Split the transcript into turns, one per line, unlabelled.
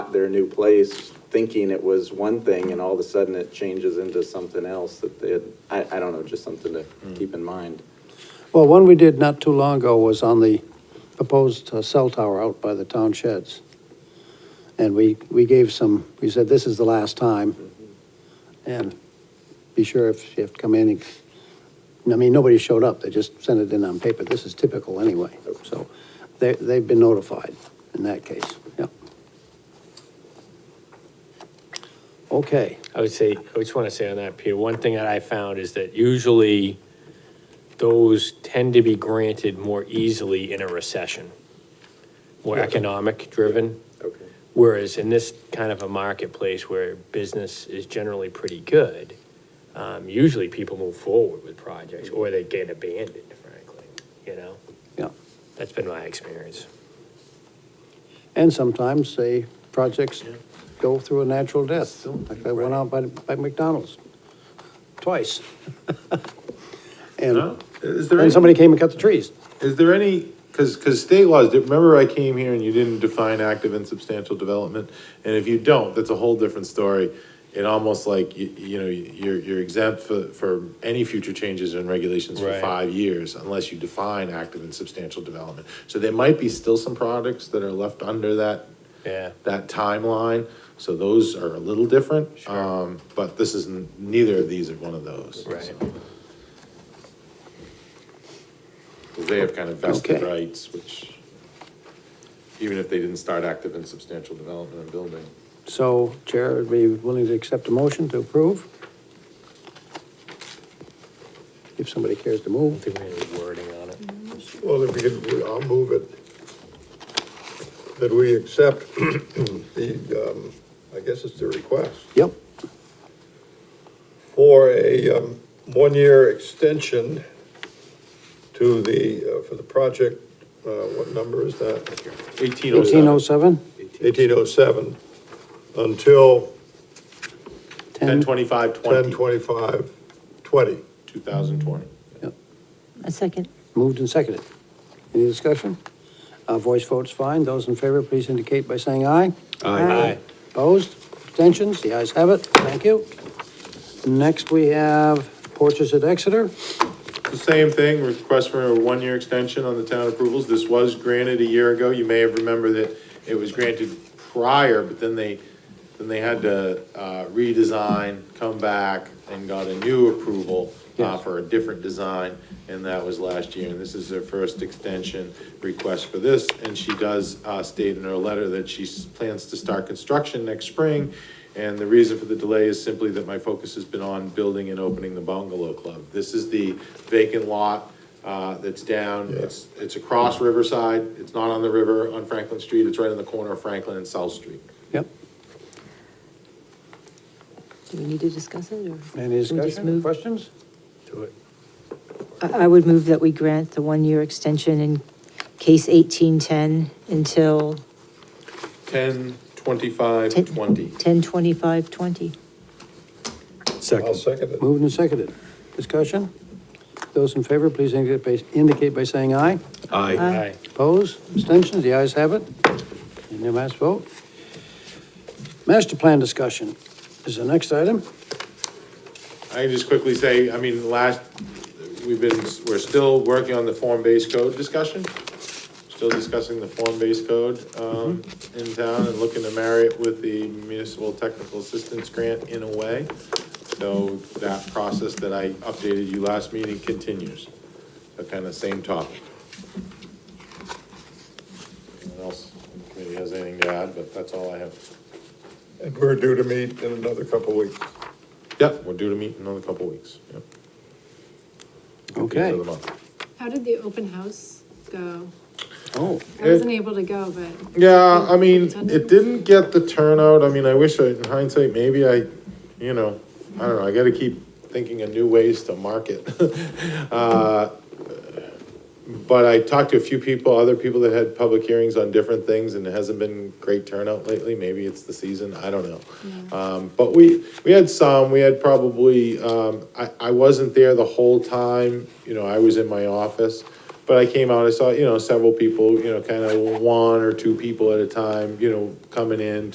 bought their new place thinking it was one thing, and all of a sudden it changes into something else that they had, I, I don't know, just something to keep in mind.
Well, one we did not too long ago was on the proposed uh, cell tower out by the town sheds. And we, we gave some, we said, this is the last time. And be sure if you have to come in, and- I mean, nobody showed up, they just sent it in on paper. This is typical anyway, so they, they've been notified in that case, yeah. Okay,
I would say, I just want to say on that, Peter, one thing that I found is that usually those tend to be granted more easily in a recession, more economic-driven,
Okay.
whereas in this kind of a marketplace where business is generally pretty good, um, usually people move forward with projects, or they get abandoned, frankly, you know?
yeah.
That's been my experience.
And sometimes they, projects go through a natural death, like that went out by, by McDonald's, twice.
No?
And,
Is there,
and
any-
somebody came and cut the trees.
is there any, because, because state laws, remember I came here and you didn't define active and substantial development? And if you don't, that's a whole different story. It almost like, you, you know, you're, you're exempt for, for any future changes in regulations for
Right.
five years unless you define active and substantial development. So there might be still some products that are left under that,
Yeah.
that timeline. So those are a little different.
Sure.
Um, but this isn't, neither of these are one of those.
Right.
so. 'Cause they have kind of vested
Okay.
rights, which, even if they didn't start active and substantial development and building.
So Chair would be willing to accept a motion to approve? If somebody cares to
I don't
move.
think we have any wording on it.
Well, if we could, I'll move it, that we accept the, um, I guess it's the request
Yep,
for a, um, one-year extension to the, uh, for the project, uh, what number is that?
Eighteen oh
eighteen oh
seven,
seven,
Eighteen oh seven, until
ten
ten,
twenty-five, twenty,
ten twenty-five twenty.
two thousand twenty.
A second.
moved and seconded. Any discussion? Uh, voice vote's fine. Those in favor, please indicate by saying aye.
Aye.
Opposed? Abstentions? The ayes have it. Thank you. Next, we have Porches at Exeter.
The same thing, request for a one-year extension on the town approvals. This was granted a year ago. You may have remembered that it was granted prior, but then they, then they had to uh, redesign, come back, and got a new approval uh,
Yes.
for a different design, and that was last year. And this is her first extension request for this, and she does uh, state in her letter that she s- plans to start construction next spring. And the reason for the delay is simply that my focus has been on building and opening the bungalow club. This is the vacant lot uh, that's down, it's, it's across Riverside, it's not on the river on Franklin Street, it's right on the corner of Franklin and South Street.
Yep.
Do we need to discuss it, or?
Any
we just
discussion,
move?
questions?
Do it.
I, I would move that we grant the one-year extension in case 1810 until
Ten, twenty-five, twenty.
10/25/20.
I'll second it.
Moved and seconded. Discussion? Those in favor, please indicate by- indicate by saying aye.
Aye.
Opposed? Abstentions? The ayes have it. And your last vote. Master plan discussion is the next item.
I can just quickly say, I mean, last, we've been, we're still working on the form-based code discussion. Still discussing the form-based code, um, in town and looking to marry it with the municipal technical assistance grant in a way. So that process that I updated you last meeting continues. So kind of same topic. Anyone else, in the committee has anything to add, but that's all I have.
And we're due to meet in another couple weeks.
Yep, we're due to meet in another couple of weeks, yep. At the end
Okay.
of the month.
How did the open house go?
Oh,
I wasn't able to go, but
Yeah, I mean, it didn't get the turnout, I mean, I wish I, in hindsight, maybe I, you know, I don't know, I gotta keep thinking of new ways to market. Uh, But I talked to a few people, other people that had public hearings on different things, and it hasn't been great turnout lately, maybe it's the season, I don't know. Um, but we, we had some, we had probably, um, I, I wasn't there the whole time, you know, I was in my office. But I came out, I saw, you know, several people, you know, kind of one or two people at a time, you know, coming in,